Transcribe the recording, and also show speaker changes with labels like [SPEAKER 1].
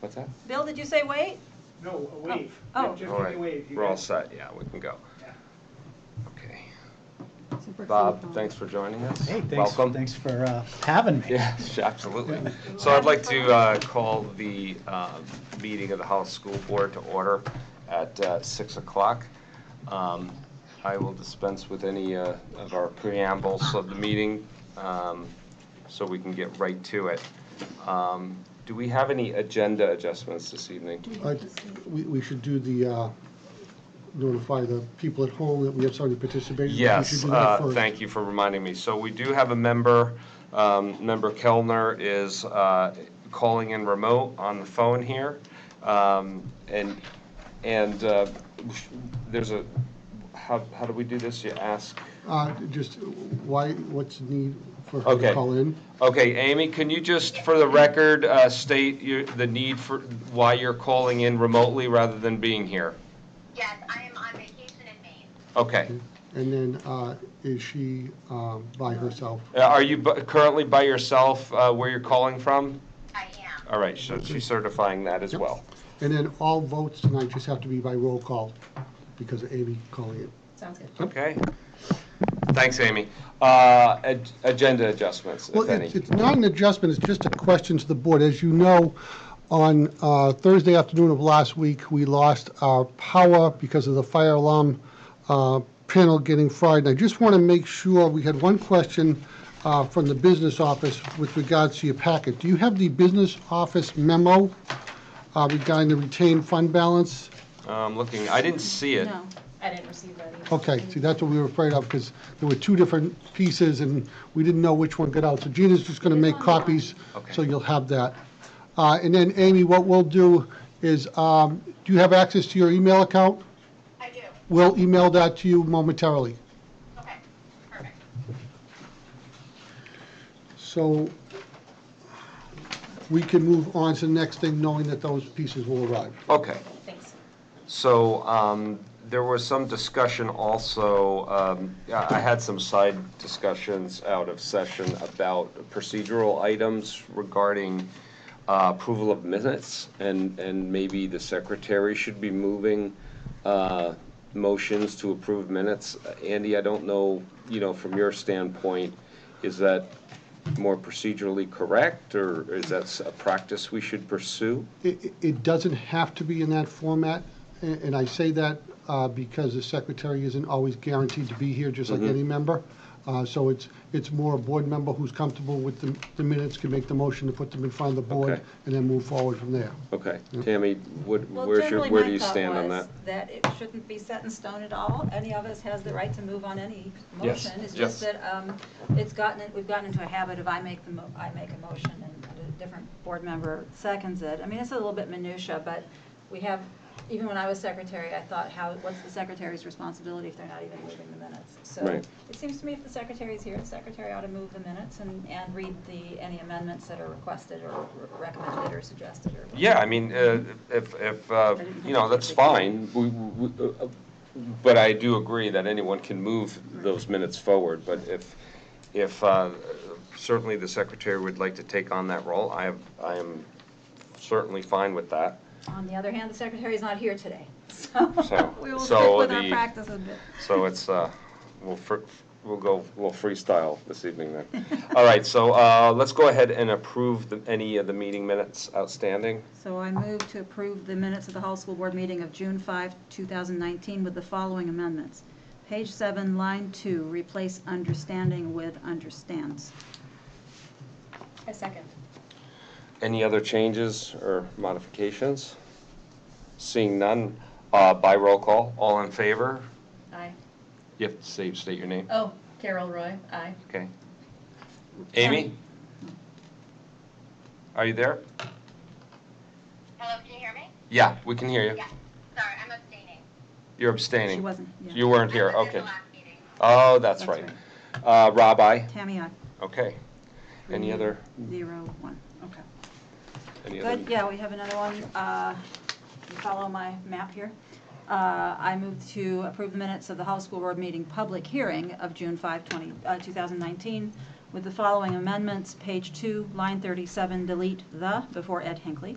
[SPEAKER 1] What's that?
[SPEAKER 2] Bill, did you say wait?
[SPEAKER 3] No, a wave.
[SPEAKER 2] Oh.
[SPEAKER 3] Yeah, Just
[SPEAKER 1] All
[SPEAKER 3] give me
[SPEAKER 1] right,
[SPEAKER 3] a wave. You
[SPEAKER 1] we're all
[SPEAKER 3] guys-
[SPEAKER 1] set, yeah, we can go.
[SPEAKER 3] Yeah.
[SPEAKER 1] Okay.
[SPEAKER 4] So Brooks will
[SPEAKER 1] Bob,
[SPEAKER 4] follow.
[SPEAKER 1] thanks for joining us.
[SPEAKER 5] Hey, thanks,
[SPEAKER 1] Welcome.
[SPEAKER 5] thanks for uh, having me.
[SPEAKER 1] Yes, absolutely. So I'd like to uh, call the uh, meeting of the House School Board to order at uh, 6 o'clock. Um, I will dispense with any uh, of our preambles of the meeting, um, so we can get right to it. Um, Do we have any agenda adjustments this evening?
[SPEAKER 6] I- We, we should do the, uh, notify the people at home that we have somebody participating. We
[SPEAKER 1] Yes,
[SPEAKER 6] should do that
[SPEAKER 1] uh,
[SPEAKER 6] first.
[SPEAKER 1] thank you for reminding me. So we do have a member, um, Member Kellner is uh, calling in remote on the phone here. Um, And, and uh, there's a, how, how do we do this? You ask,
[SPEAKER 6] Uh, Just why, what's the need for her
[SPEAKER 1] Okay.
[SPEAKER 6] to call in?
[SPEAKER 1] okay, Amy, can you just, for the record, uh, state your- the need for, why you're calling in remotely rather than being here?
[SPEAKER 7] Yes, I am on vacation in Maine.
[SPEAKER 1] Okay.
[SPEAKER 6] And then uh, is she um, by herself?
[SPEAKER 1] Uh, Are you bu- currently by yourself uh, where you're calling from?
[SPEAKER 7] I am.
[SPEAKER 1] All right, so she's certifying that as
[SPEAKER 6] Yep.
[SPEAKER 1] well.
[SPEAKER 6] And then all votes tonight just have to be by roll call because of Amy calling it.
[SPEAKER 4] Sounds good.
[SPEAKER 1] Okay. Thanks, Amy. Uh, ag- Agenda adjustments, if
[SPEAKER 6] Well,
[SPEAKER 1] any.
[SPEAKER 6] it's, it's not an adjustment, it's just a question to the board. As you know, on uh, Thursday afternoon of last week, we lost our power because of the fire alarm uh, panel getting fried. And I just want to make sure, we had one question uh, from the business office with regards to your packet. Do you have the business office memo uh, regarding the retained fund balance?
[SPEAKER 1] I'm looking, I didn't see it.
[SPEAKER 4] No, I didn't receive that either.
[SPEAKER 6] Okay, see, that's what we were afraid of, because there were two different pieces, and we didn't know which one got out. So Gina's just going to make copies, so
[SPEAKER 1] Okay.
[SPEAKER 6] you'll have that. Uh, And then, Amy, what we'll do is, um, do you have access to your email account?
[SPEAKER 7] I do.
[SPEAKER 6] We'll email that to you momentarily.
[SPEAKER 7] Okay, perfect.
[SPEAKER 6] So we can move on to the next thing, knowing that those pieces will arrive.
[SPEAKER 1] Okay,
[SPEAKER 4] Thanks.
[SPEAKER 1] so um, there was some discussion also, um, I I had some side discussions out of session about procedural items regarding uh, approval of minutes, and, and maybe the secretary should be moving uh, motions to approve minutes. Andy, I don't know, you know, from your standpoint, is that more procedurally correct, or is that a practice we should pursue?
[SPEAKER 6] It, it- it doesn't have to be in that format, a- and I say that uh, because the secretary isn't always guaranteed to be here, just like any member. Uh, So it's, it's more a board member who's comfortable with the- the minutes, can make the motion to put them in front of the board,
[SPEAKER 1] Okay.
[SPEAKER 6] and then move forward from there.
[SPEAKER 1] Okay, Tammy, what,
[SPEAKER 2] Well,
[SPEAKER 1] where's your,
[SPEAKER 2] generally,
[SPEAKER 1] where
[SPEAKER 2] my
[SPEAKER 1] do you
[SPEAKER 2] thought
[SPEAKER 1] stand on
[SPEAKER 2] was
[SPEAKER 1] that?
[SPEAKER 2] That it shouldn't be set in stone at all. Any of us has the right to move on any
[SPEAKER 1] Yes,
[SPEAKER 2] motion. It's
[SPEAKER 1] yes.
[SPEAKER 2] just that um, it's gotten, we've gotten into a habit of I make the, mo- I make a motion and a different board member seconds it. I mean, it's a little bit minutia, but we have, even when I was secretary, I thought, how, what's the secretary's responsibility if they're not even moving the minutes? So
[SPEAKER 1] Right.
[SPEAKER 2] it seems to me if the secretary's here, the secretary ought to move the minutes and, and read the, any amendments that are requested or recommended or suggested or.
[SPEAKER 1] Yeah, I mean, uh, if, if, uh,
[SPEAKER 2] I didn't
[SPEAKER 1] you know,
[SPEAKER 2] think
[SPEAKER 1] that's
[SPEAKER 2] it was-
[SPEAKER 1] fine, we, we- uh, uh, but I do agree that anyone can move those minutes forward, but if, if uh, certainly the secretary would like to take on that role, I am, I am certainly fine with that.
[SPEAKER 2] On the other hand, the secretary's not here today, so
[SPEAKER 1] So-
[SPEAKER 2] we will
[SPEAKER 1] so
[SPEAKER 2] stick with our
[SPEAKER 1] the-
[SPEAKER 2] practice a bit.
[SPEAKER 1] So it's, uh, we'll, fr- we'll go, we'll freestyle this evening then. All right, so uh, let's go ahead and approve the- any of the meeting minutes outstanding.
[SPEAKER 2] So I move to approve the minutes of the Hall School Board meeting of June 5, 2019 with the following amendments. Page 7, line 2, replace understanding with understands.
[SPEAKER 4] I second.
[SPEAKER 1] Any other changes or modifications? Seeing none, uh, by roll call, all in favor?
[SPEAKER 4] Aye.
[SPEAKER 1] You have to say, state your name.
[SPEAKER 4] Oh, Carol Roy, aye.
[SPEAKER 1] Okay. Amy? Are you there?
[SPEAKER 7] Hello, can you hear me?
[SPEAKER 1] Yeah, we can hear you.
[SPEAKER 7] Yeah. Sorry, I'm abstaining.
[SPEAKER 1] You're
[SPEAKER 2] She
[SPEAKER 1] abstaining.
[SPEAKER 2] wasn't, yeah.
[SPEAKER 1] You weren't here,
[SPEAKER 7] I was in
[SPEAKER 1] okay.
[SPEAKER 7] the last meeting.
[SPEAKER 1] Oh, that's
[SPEAKER 2] That's
[SPEAKER 1] right. Uh, Rob, aye?
[SPEAKER 2] Tammy, I,
[SPEAKER 1] Okay. Any other,
[SPEAKER 2] zero one. okay.
[SPEAKER 1] any other?
[SPEAKER 2] Good, yeah, we have another one. Uh, you Follow my map here. Uh, I move to approve the minutes of the Hall School Board meeting public hearing of June 5, 20 uh, 2019, with the following amendments. Page 2, line 37, delete the before Ed Hinckley.